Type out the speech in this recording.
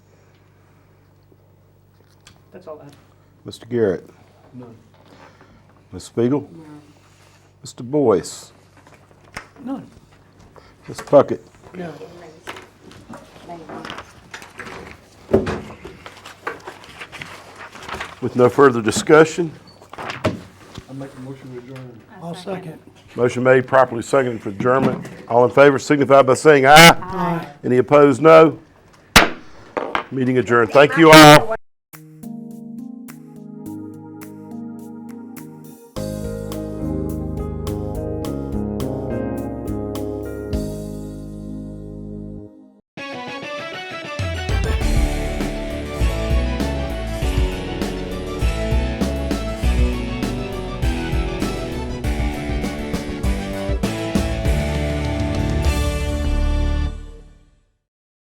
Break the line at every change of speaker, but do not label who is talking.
That's all I have.
Mr. Garrett? None. Ms. Spiegel? Mr. Boyce?
None.
Ms. Puckett?
No.
With no further discussion,
I make a motion to adjourn.
I'll second.
motion made properly seconded for adjournment. All in favor signify by saying aye. Aye. Any opposed, no. Meeting adjourned. Thank you all.